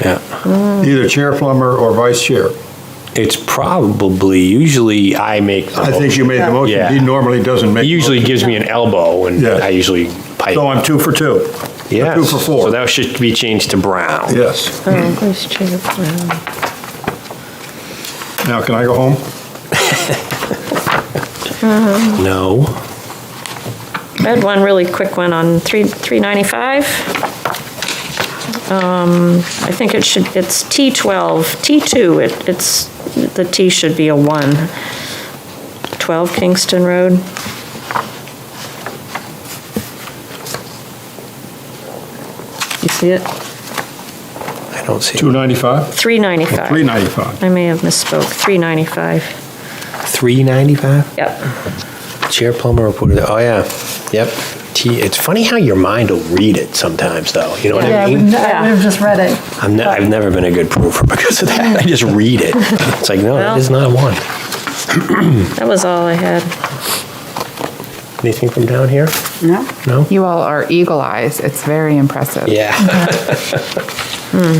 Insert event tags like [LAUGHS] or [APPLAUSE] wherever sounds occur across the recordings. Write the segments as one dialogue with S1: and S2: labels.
S1: Yeah.
S2: either chair plumber or vice chair.
S1: It's probably, usually I make. the
S2: I think you made the motion.
S1: Yeah.
S2: He normally doesn't make.
S1: He usually gives me an elbow and
S2: Yeah.
S1: I usually pipe.
S2: So I'm two for two.
S1: Yes.
S2: Two
S1: So
S2: for four.
S1: that should be changed to Brown.
S2: Yes.
S3: Oh, vice chair, Brown.
S2: Now, can I go home?
S1: No.
S3: I had one really quick one on three 395. Um, I think it should, it's T12, T2, it- it's, the T should be a 1. 12 Kingston Road. You see it?
S1: I don't see.
S2: 295?
S3: 395.
S2: 395.
S3: I may have misspoke, 395.
S1: 395?
S3: Yep,
S1: Chair plumber reported, oh yeah, yep. T, it's funny how your mind will read it sometimes though, you know what
S4: Yeah,
S1: I
S4: we've
S1: mean?
S4: n- we've just read it.
S1: I'm, ne- I've never been a good proofer [LAUGHS] because of that. I just read it. It's like, no, that is not one.
S3: that was all I had.
S1: Anything from down here?
S5: No?
S1: No?
S6: You all are eagle eyes. It's very impressive.
S1: Yeah. Hmm.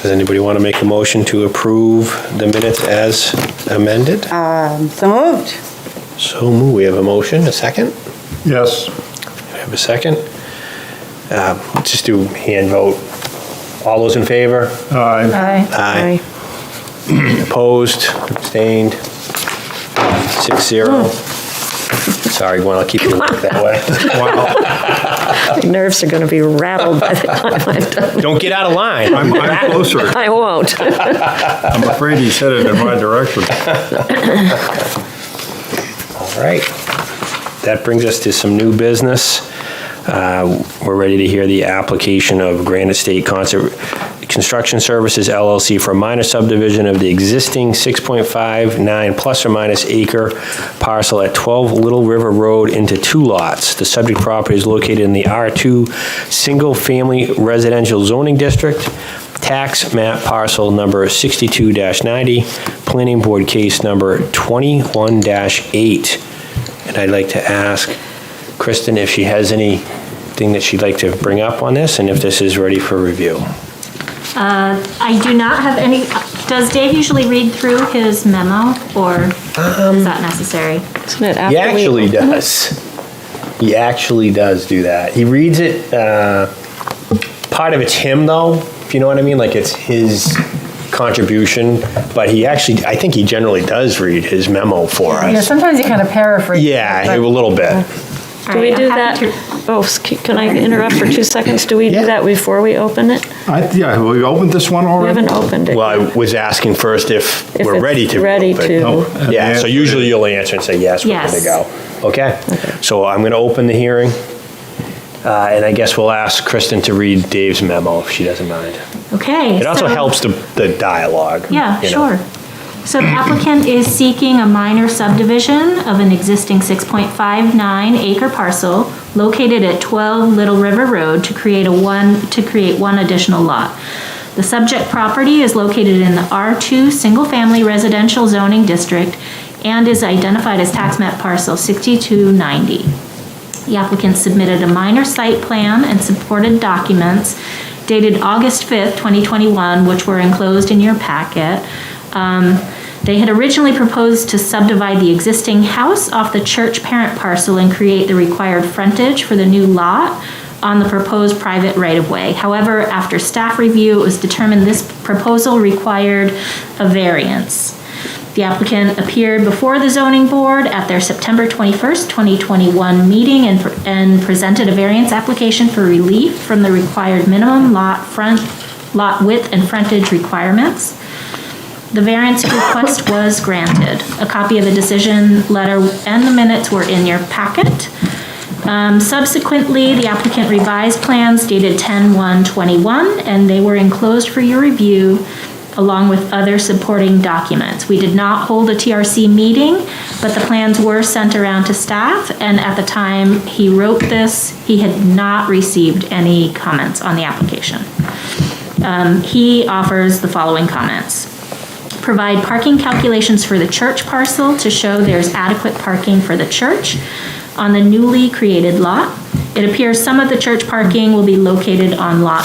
S1: Does anybody want to make a motion to approve the minutes as amended?
S5: Um, So moved.
S1: So moved. We have a motion, a second?
S2: Yes.
S1: We have a second? Uh, let's Just do hand vote. All those in favor?
S2: Aye.
S4: Aye.
S1: Aye. Opposed, abstained, six zero. Sorry, Gwen, I'll keep you that
S2: [LAUGHS]
S1: way.
S2: Wow.
S3: My Nerves are going to be rattled by the time I'm done.
S1: Don't get out of
S2: [LAUGHS]
S1: line.
S2: I'm I'm closer.
S3: [LAUGHS] I won't.
S2: I'm afraid he's headed in my direction.
S1: All right. That brings us to some new business. Uh, We're ready to hear the application of Granite State Concert Construction Services LLC for a minor subdivision of the existing 6.59 plus or minus acre parcel at 12 Little River Road into two lots. The subject property is located in the R2 Single Family Residential Zoning District. Tax map parcel number 62-90, planning board case number 21-8. And I'd like to ask Kristen if she has anything that she'd like to bring up on this and if this is ready for review.
S7: Uh, I do not have any, does Dave usually read through his memo, or is that necessary?
S3: Isn't it
S1: He
S3: after we-
S1: actually does. He actually does do that. He reads it. Uh, part of it's him, though, if you know what I mean. Like it's his contribution, but he actually, I think he generally does read his memo for us.
S4: Yeah, sometimes you kind of paraphrase.
S1: Yeah,
S4: but-
S1: a little bit.
S3: Do we do that? Oh, s- can I interrupt for two seconds? Do we
S1: Yeah.
S3: do that before we open it?
S2: I, yeah, have we opened this one
S3: We
S2: already?
S3: haven't opened it.
S1: Well, I
S3: yet.
S1: was asking first if
S3: If
S1: we're
S3: it's
S1: ready to.
S3: ready
S1: reopen.
S3: to. No.
S1: Yeah, so usually you'll answer and say, yes, we're good to go.
S7: Yes.
S1: Okay, so I'm going to open the hearing, uh, and I guess we'll ask Kristen to read Dave's memo, if she doesn't mind.
S7: Okay.
S1: It also
S7: so-
S1: helps the, the dialogue.
S7: Yeah,
S1: you know.
S7: sure. So the applicant is seeking a minor subdivision of an existing 6.59 acre parcel located at 12 Little River Road to create a one, to create one additional lot. The subject property is located in the R2 Single Family Residential Zoning District and is identified as tax map parcel 6290. The applicant submitted a minor site plan and supported documents dated August 5th, 2021, which were enclosed in your packet. Um, They had originally proposed to subdivide the existing house off the church parent parcel and create the required frontage for the new lot on the proposed private right-of-way. However, after staff review, it was determined this proposal required a variance. The applicant appeared before the zoning board at their September 21st, 2021 meeting and, and presented a variance application for relief from the required minimum lot front, lot width and frontage requirements. The variance request was granted. A copy of the decision letter and the minutes were in your packet. Um, Subsequently, the applicant revised plans dated 10/1/21, and they were enclosed for your review along with other supporting documents. We did not hold a TRC meeting, but the plans were sent around to staff, and at the time he wrote this, he had not received any comments on the application. Um, He offers the following comments provide parking calculations for the church parcel to show there's adequate parking for the church on the newly created lot. It appears some of the church parking will be located on Lot